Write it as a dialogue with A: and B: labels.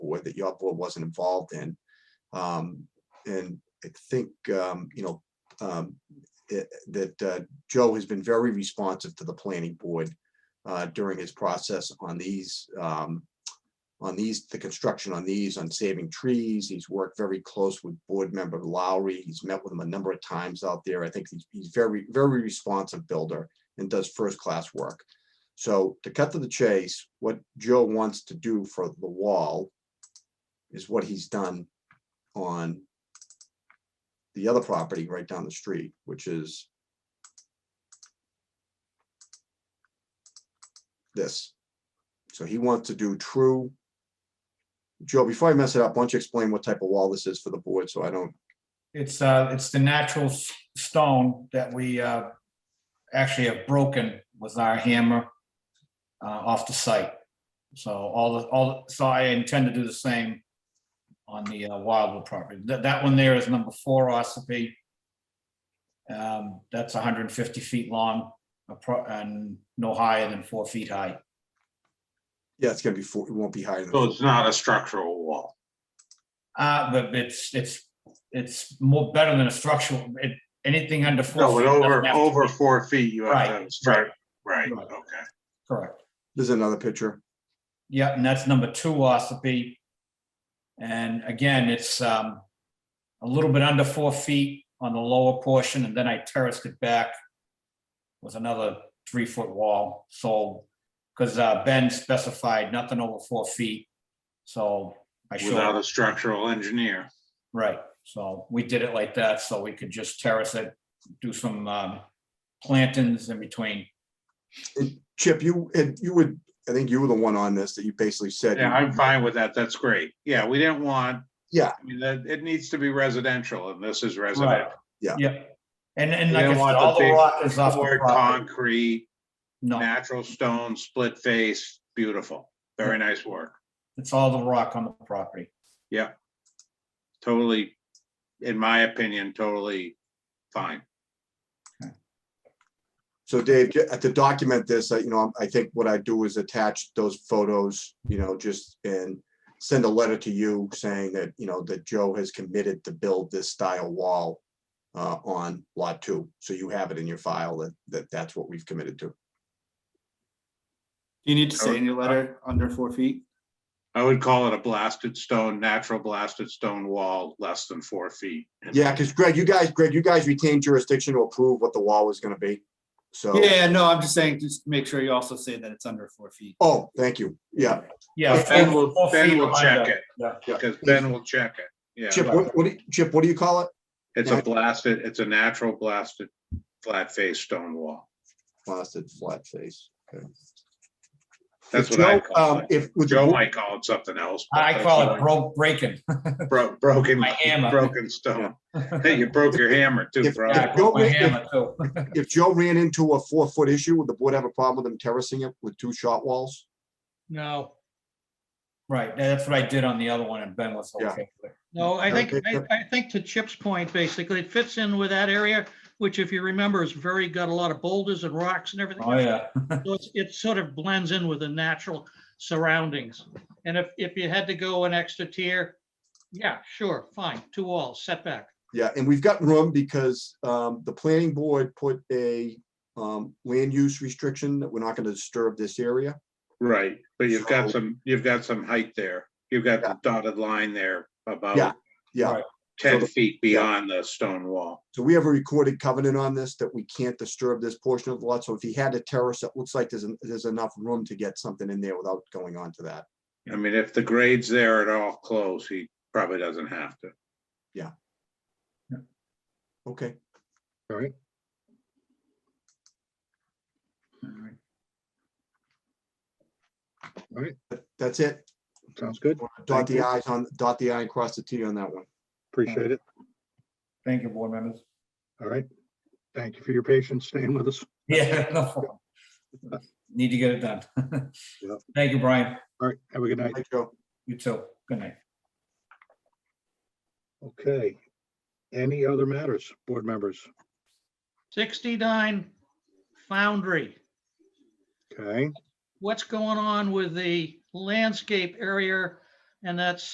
A: board that your board wasn't involved in. Um, and I think, um, you know, um, it- that, uh, Joe has been very responsive to the planning board, uh, during his process on these, um, on these, the construction on these, on saving trees. He's worked very close with board member Lowry. He's met with him a number of times out there. I think he's, he's very, very responsive builder and does first-class work. So to cut to the chase, what Joe wants to do for the wall is what he's done on the other property right down the street, which is this. So he wants to do true. Joe, before I mess it up, why don't you explain what type of wall this is for the board so I don't,
B: It's, uh, it's the natural s- stone that we, uh, actually have broken with our hammer, uh, off the site. So all the, all, so I intend to do the same on the uh, Wildwood property. That, that one there is number four, Ossipee. Um, that's hundred and fifty feet long, appro- and no higher than four feet high.
A: yeah, it's gonna be four, it won't be higher
C: So
A: than,
C: it's not a structural wall.
B: Uh, but it's, it's, it's more better than a structural, it, anything under four.
C: No,
B: feet
C: but
B: doesn't
C: over,
B: have to
C: over
B: be-
C: four feet, you have to have a
B: Right,
C: strike, right,
B: Right.
C: okay.
B: Correct.
A: there's another picture.
B: Yeah, and that's number two, Ossipee. And again, it's um, a little bit under four feet on the lower portion, and then I terraced it back with another three-foot wall, so, because Ben specified nothing over four feet, so I
C: Without
B: showed,
C: a structural engineer.
B: right, so we did it like that, so we could just terrace it, do some um, plantings in between.
A: Chip, you, and you would, I think you were the one on this that you basically said. you-
C: Yeah, I'm fine with that. That's great. Yeah, we didn't want.
A: Yeah.
C: I mean, that, it needs to be residential and this is residential.
A: Yeah.
B: Yep, and, and
C: You
B: like I
C: don't
B: said,
C: want the
B: all the
C: big
B: rock is off the
C: Poured
B: property.
C: concrete,
B: No.
C: natural stone, split face, beautiful. Very nice work.
B: It's all the rock on the property.
C: Totally, in my opinion, totally fine.
A: So Dave, ju- uh, to document this, I- you know, I think what I do is attach those photos, you know, just and send a letter to you saying that, you know, that Joe has committed to build this style wall uh, on lot two. So you have it in your file that, that that's what we've committed to.
D: You need to
C: Or-
D: say in your letter, under four feet.
C: I would call it a blasted stone, natural blasted stone wall, less than four feet.
A: Yeah, because Greg, you guys, Greg, you guys retained jurisdiction to approve what the wall was going to be. So,
B: Oh.
D: Yeah, no, I'm just saying, just make sure you also say that it's under four feet.
A: oh, thank you. Yeah.
B: Yeah.
C: Ben will,
B: four
C: Ben
B: feet
C: will check
B: under.
C: it,
B: Yeah.
C: because Ben will check it. Yeah,
A: Chip, what, what do you- Chip, what do you call it?
C: it's a blasted, it's a natural blasted, flat face stone wall.
A: Blasted flat face. Okay.
C: That's
A: If
C: what I
A: Joe,
C: call
A: um,
C: it.
A: If. with the
C: Joe
A: board-
C: might call it something else. but
B: I
C: that's
B: call
C: what
B: it broke breaking.
C: Bro, broken,
B: My hammer.
C: broken stone. Hey, you broke your hammer too,
A: If-
C: bro.
B: Yeah, I broke my hammer too.
A: if Joe ran into a four-foot issue, would the board have a problem with him terracing it with two shot walls?
E: No,
B: Right, that's what I did on the other one and Ben was
A: Yeah.
B: okay. with it.
E: no, I think,
A: Okay,
E: I, I think to Chip's point, basically, it fits in with that area, which if you remember is very, got a lot of boulders and rocks and everything.
B: Oh, yeah.
E: So it's- It sort of blends in with the natural surroundings. And if, if you had to go an extra tier, yeah, sure, fine, two walls setback.
A: Yeah, and we've got room because um, the planning board put a um, land use restriction that we're not going to disturb this area.
C: Right, but you've got
A: So-
C: some, you've got some height there. You've got the dotted line there
A: Yeah,
C: about
A: Yeah,
B: Right.
A: So-
C: ten feet beyond the stone wall.
A: so we have a recorded covenant on this that we can't disturb this portion of the lot. So if he had to terrace, it looks like there's, en- there's enough room to get something in there without going on to that.
C: I mean, if the grade's there at all close, he probably doesn't have to.
A: Okay,
B: Alright.
A: that- that's it.
F: Sounds good.
A: Dot
F: Thank
A: the
F: you.
A: i's on, dot the i and cross the t on that one.
F: Appreciate it.
B: Thank you, board members.
F: All right. Thank you for your patience staying with us.
B: Yeah. no problem. Need to get it done.
F: Yeah.
B: Thank you, Brian.
F: All right. Have a good night.
A: Thank you.
B: You too. Good night.
F: Okay. Any other matters, board members?
E: 69 Foundry.
F: Okay.
E: what's going on with the landscape area And that's